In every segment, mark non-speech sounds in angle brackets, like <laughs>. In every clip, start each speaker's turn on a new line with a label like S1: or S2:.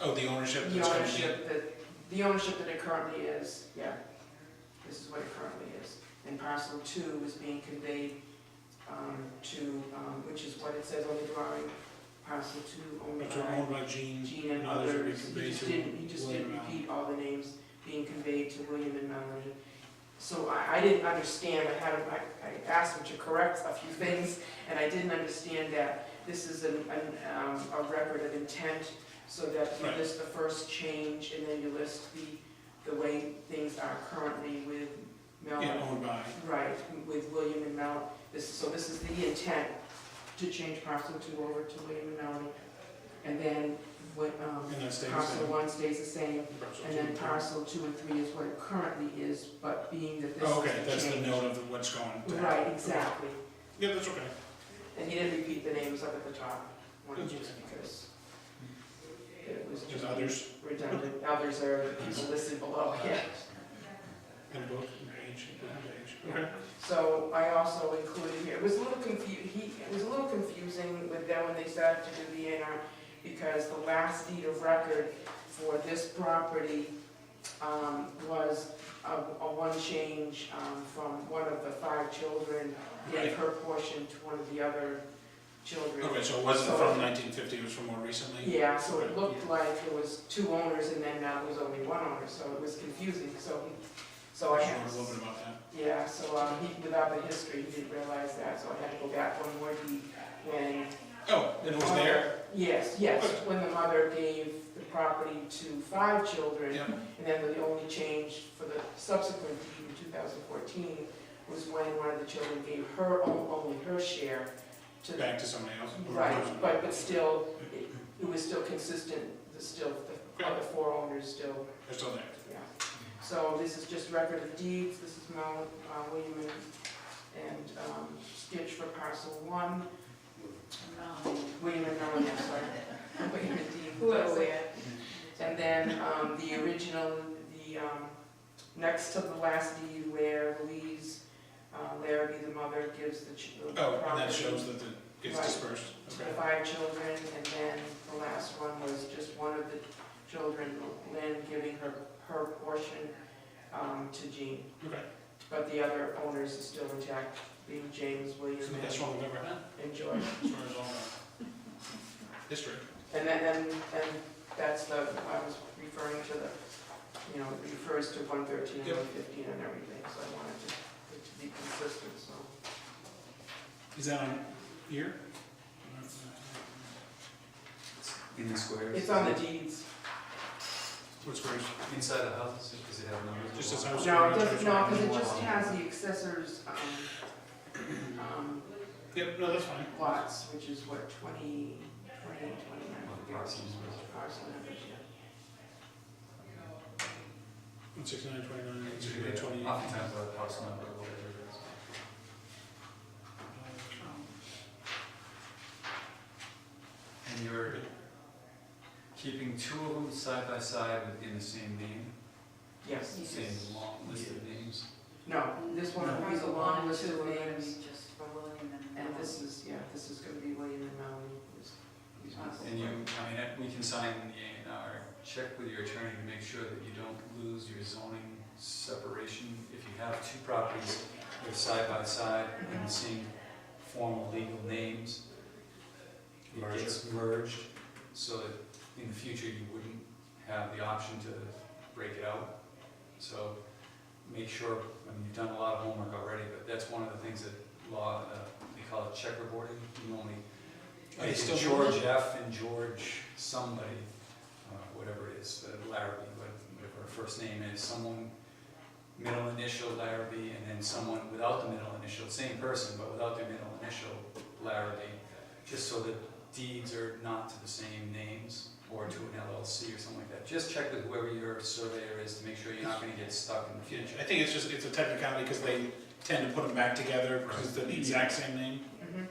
S1: Oh, the ownership
S2: The
S1: that's going to be,
S2: ownership that, the ownership that it currently is, yeah. This is what it currently is. And parcel two is being conveyed um, to, um, which is what it says on the drawing, parcel two owned
S1: which are
S2: by
S1: owned by Gene,
S2: Gene and
S1: others will be
S2: others. He
S1: conveyed
S2: just
S1: to
S2: didn't, he just didn't
S1: William Allen.
S2: repeat all the names being conveyed to William and Melanie. So I, I didn't understand, I had, a- I, I asked him to correct a few things, and I didn't understand that this is an, an, um, a record of intent, so that you
S1: Right.
S2: list the first change, and then you list the, the way things are currently with
S1: yeah,
S2: Melanie.
S1: owned by.
S2: Right, with William and Mel, this, so this is the intent to change parcel two over to William and Melanie. And then what, um,
S1: And that stays the
S2: parcel
S1: same.
S2: one stays the same,
S1: Parcel
S2: and
S1: two
S2: then
S1: and three.
S2: parcel two and three is what it currently is, but being that this
S1: Oh,
S2: is
S1: okay, that's
S2: the
S1: the
S2: change.
S1: note of what's going to happen.
S2: Right, exactly,
S1: Yeah, that's okay.
S2: and he didn't repeat the names up at the top, one
S1: That's
S2: just
S1: okay.
S2: because it was
S1: There's
S2: just
S1: others
S2: redundant, others are listed below, yeah.
S1: in book, in page, in page.
S2: Yeah.
S1: Okay,
S2: So I also included here, it was a little confu, he, it was a little confusing with them when they started to do the A and R, because the last deed of record for this property, um, was a, a one change, um, from one of the five children,
S1: Right. Oh,
S2: gave her portion to one of the other children.
S1: okay, so it wasn't
S2: So-
S1: from nineteen fifty, it was from more recently?
S2: Yeah, so it looked like it was two owners, and then now there's only one owner, so it was confusing, so, so I
S1: I
S2: had.
S1: just wrote a little bit about that.
S2: Yeah, so um, he, without the history, he didn't realize that, so I had to go back one more deed when.
S1: Oh, it was there?
S2: Yes, yes, when the mother gave the property to five children.
S1: Yeah,
S2: And then the only change for the subsequent deed in 2014 was when one of the children gave her, own- only her share to the
S1: back to somebody else. or
S2: Right,
S1: person.
S2: but, but still, it- it was still consistent, the still, the other four owners still
S1: They're still there.
S2: yeah, so this is just record of deeds, this is Mount uh, William and- and um, Stitch for parcel one. William and Melanie, I'm sorry. <laughs> William and Dean.
S3: Whoever.
S2: And then um, the original, the, um, next to the last deed where Louise uh, Larrabee, the mother, gives the ch- the
S1: Oh, and that
S2: property
S1: shows that the, it's
S2: Right.
S1: dispersed.
S2: to the
S1: Okay,
S2: five children, and then the last one was just one of the children, Lynn, giving her, her portion um, to Jean.
S1: okay.
S2: But the other owners is still intact, being James, William,
S1: So that's wrong with everyone,
S2: and George.
S1: as far as all the district.
S2: And then, and, and that's the, I was referring to the, you know, it refers to one thirteen and
S1: Yep.
S2: one fifteen and everything, so I wanted to, it to be consistent, so.
S1: Is that on here?
S4: In the squares?
S2: It's on the deeds.
S1: What's first?
S4: Inside the houses, does it have numbers?
S1: Just as I was.
S2: No, it doesn't, no, because it just has the accessors, um, um,
S1: Yep, no, that's fine.
S2: lots, which is what, twenty, twenty, twenty-nine?
S4: Well, parcels.
S2: Parcel numbers, yeah.
S1: One sixty-nine, twenty-nine,
S4: It's
S1: eighty-eight,
S4: really-
S1: twenty-eight.
S4: Oftentimes by the house number, or whatever it is. And you're keeping two of them side by side within the same name,
S2: Yes,
S4: same long list of names?
S2: no, this one
S4: No.
S2: is a long list of names.
S3: Just for William
S2: And this is, yeah, this is gonna be William and Melanie, who's, who's possible.
S4: And you, I mean, we can sign the A and R, check with your attorney to make sure that you don't lose your zoning separation. If you have two properties that are side by side in the same formal legal names, it gets merged, so that in the future you wouldn't have the option to break it out. So make sure, I mean, you've done a lot of homework already, but that's one of the things that law, uh, they call it checkerboarding, you only
S1: Are they
S4: like
S1: still doing
S4: George F. and George somebody, uh, whatever it is, uh, Larrabee, what- whatever her first name is, someone, middle initial Larrabee, and then someone without the middle initial, same person, but without their middle initial Larrabee, just so that deeds are not to the same names or to an LLC or something like that. Just check with whoever your surveyor is to make sure you're not gonna get stuck in the
S1: Yeah,
S4: future.
S1: I think it's just, it's a technicality because they tend to put them back together because it's the exact same name.
S2: Mhm.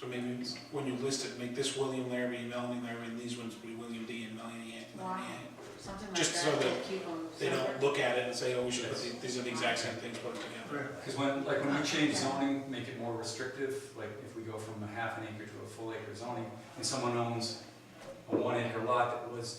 S1: So maybe when you list it, make this William Larrabee, Melanie Larrabee, and these ones be William D. and Melanie A. Melanie A.
S3: Something like
S1: just so
S3: that,
S1: that
S3: they keep them
S1: They don't
S3: separate.
S1: look at it and say, oh, we should put, the- these are the exact same things, put them together.
S4: Because when, like, when we change zoning, make it more restrictive, like, if we go from a half an acre to a full acre zoning, and someone owns a one acre lot that was